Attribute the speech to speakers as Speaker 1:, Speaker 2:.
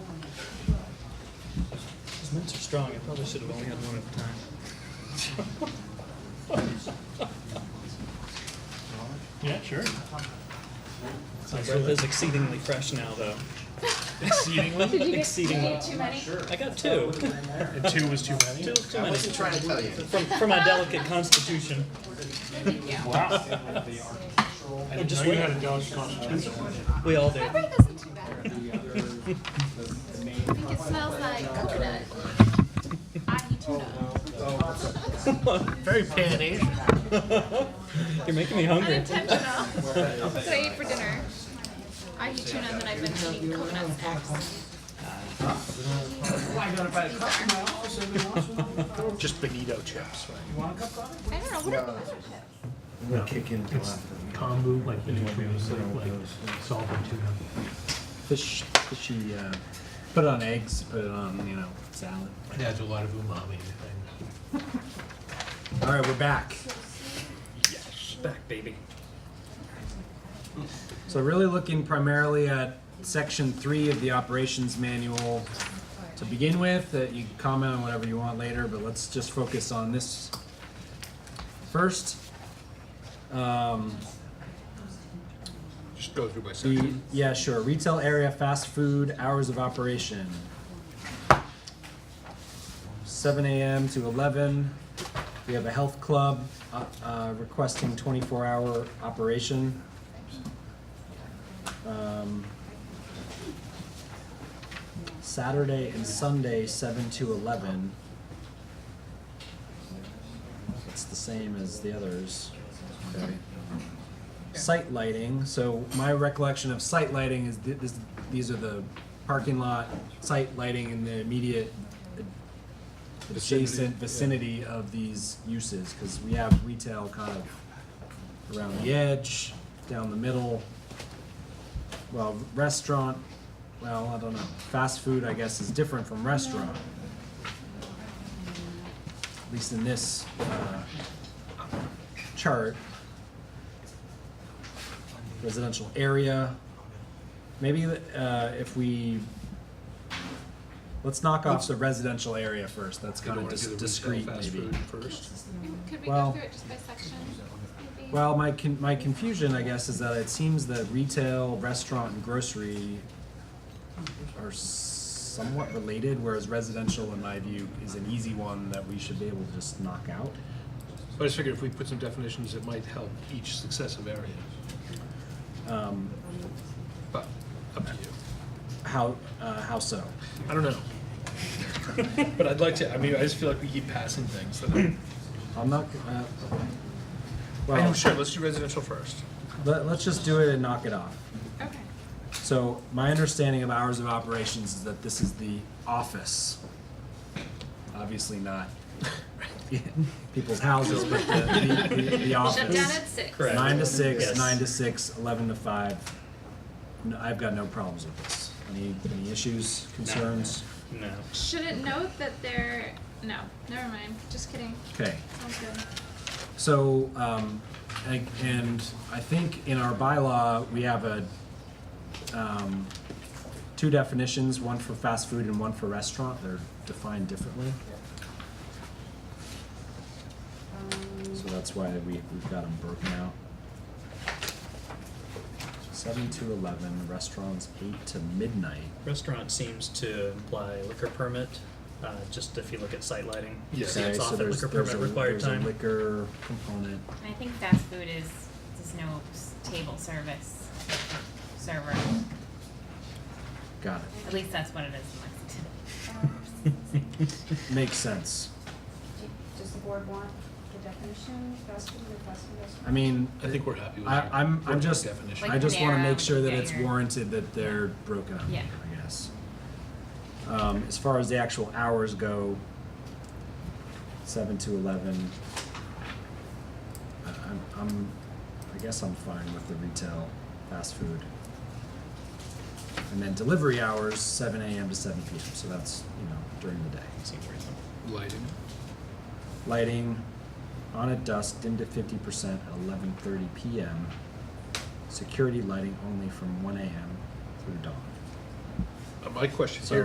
Speaker 1: Mints are strong, I probably should have only had one at a time. Yeah, sure. My breath is exceedingly fresh now, though.
Speaker 2: Did you
Speaker 1: Exceedingly?
Speaker 2: get, did you
Speaker 1: Exceedingly.
Speaker 2: get too many?
Speaker 1: I got two.
Speaker 3: And two was too many?
Speaker 1: Two, too
Speaker 4: I
Speaker 1: many.
Speaker 4: wasn't trying to tell you.
Speaker 1: From, from my delicate constitution.
Speaker 3: Wow. I
Speaker 1: Oh,
Speaker 3: didn't
Speaker 1: just
Speaker 3: know you
Speaker 1: wait.
Speaker 3: had a dog's constitution.
Speaker 1: We all do.
Speaker 2: My breath isn't too bad. I think it smells like coconut. I eat tuna.
Speaker 3: Very pan-Asian.
Speaker 1: You're making me hungry.
Speaker 2: Unintentional.
Speaker 1: Oh,
Speaker 2: That's what I eat for dinner. I eat tuna and then I've been eating coconut snacks.
Speaker 3: Just bonito chips, right?
Speaker 2: I don't know, what are coconut
Speaker 4: We'll kick into
Speaker 5: It's kombu, like, in between, it's like, like salt and tuna.
Speaker 6: Fish, fishy, uh, put it on eggs, put it on, you know, salad.
Speaker 5: It adds a lot of umami to things.
Speaker 6: All right, we're back.
Speaker 1: Back, baby.
Speaker 6: So really looking primarily at section three of the operations manual to begin with, that you can comment on whatever you want later, but let's just focus on this first. Um,
Speaker 5: Just go through by
Speaker 6: the,
Speaker 5: section.
Speaker 6: yeah, sure, retail area, fast food, hours of operation. Seven AM to eleven, we have a health club, uh, uh, requesting twenty-four hour operation. Um, Saturday and Sunday, seven to eleven. It's the same as the others. Okay. Site lighting, so my recollection of site lighting is thi- this, these are the parking lot, site lighting in the immediate adjacent vicinity of these uses, cause we have retail kind of around the edge, down the middle. Well, restaurant, well, I don't know, fast food, I guess, is different from restaurant. At least in this, uh, chart. Residential area, maybe, uh, if we, let's knock off the residential area first, that's
Speaker 5: You
Speaker 6: kinda
Speaker 5: don't wanna do the
Speaker 6: dis-
Speaker 5: retail
Speaker 6: discreet maybe.
Speaker 5: fast food First.
Speaker 2: snacks? Could we
Speaker 6: Well-
Speaker 2: go through it just by section? maybe?
Speaker 6: Well, my con- my confusion, I guess, is that it seems that retail, restaurant, and grocery are somewhat related, whereas residential, in my view, is an easy one that we should be able to just knock out.
Speaker 5: But I just figured if we put some definitions, it might help each successive area.
Speaker 6: Um,
Speaker 5: But up to you.
Speaker 6: how uh, how so?
Speaker 5: I don't know. But I'd like to, I mean, I just feel like we keep passing things. that I-
Speaker 6: I'm not. Uh,
Speaker 5: I'm
Speaker 6: well,
Speaker 5: sure, let's do residential first.
Speaker 6: let, let's just do it and knock it off.
Speaker 2: Okay.
Speaker 6: So my understanding of hours of operations is that this is the office. Obviously not people's houses, but the, the, the, the office.
Speaker 2: Shut down at six.
Speaker 1: Correct.
Speaker 6: Nine to six,
Speaker 1: Yes.
Speaker 6: nine to six, eleven to five. No, I've got no problems with this. Any any issues, concerns?
Speaker 1: No.
Speaker 2: Should it note that they're, no, never mind, just kidding,
Speaker 6: Okay.
Speaker 2: sounds good.
Speaker 6: So, um, and, and I think in our bylaw, we have a, um, two definitions, one for fast food and one for restaurant, they're defined differently. So that's why we, we've got them broken out. Seven to eleven, restaurants eight to midnight.
Speaker 1: Restaurant seems to imply liquor permit, uh, just if you look at site lighting.
Speaker 5: Yeah.
Speaker 1: See,
Speaker 6: Okay,
Speaker 1: it's off
Speaker 6: so
Speaker 1: at
Speaker 6: there's,
Speaker 1: liquor
Speaker 6: there's
Speaker 1: permit
Speaker 6: a,
Speaker 1: required
Speaker 6: there's a
Speaker 1: time.
Speaker 6: liquor component.
Speaker 7: And I think fast food is, there's no s- table service server.
Speaker 6: Got it.
Speaker 7: At least that's what it is in Lexington.
Speaker 6: Makes sense.
Speaker 8: Does the board want the definition, fast food or fast food restaurant?
Speaker 6: I mean.
Speaker 5: I think we're happy with
Speaker 6: I,
Speaker 5: that.
Speaker 6: I'm, I'm just,
Speaker 5: Definition.
Speaker 6: I just wanna make sure that it's
Speaker 7: Like narrow,
Speaker 6: warranted that they're broken up,
Speaker 7: Yeah.
Speaker 6: I guess. Um, as far as the actual hours go, seven to eleven. I, I'm, I'm, I guess I'm fine with the retail fast food. And then delivery hours, seven AM to seven PM, so that's, you know, during the day.
Speaker 1: Seems reasonable.
Speaker 5: Lighting.
Speaker 6: Lighting on at dusk, dimmed to fifty percent at eleven thirty PM. Security lighting only from one AM through dawn.
Speaker 5: Uh, My question
Speaker 6: So
Speaker 5: here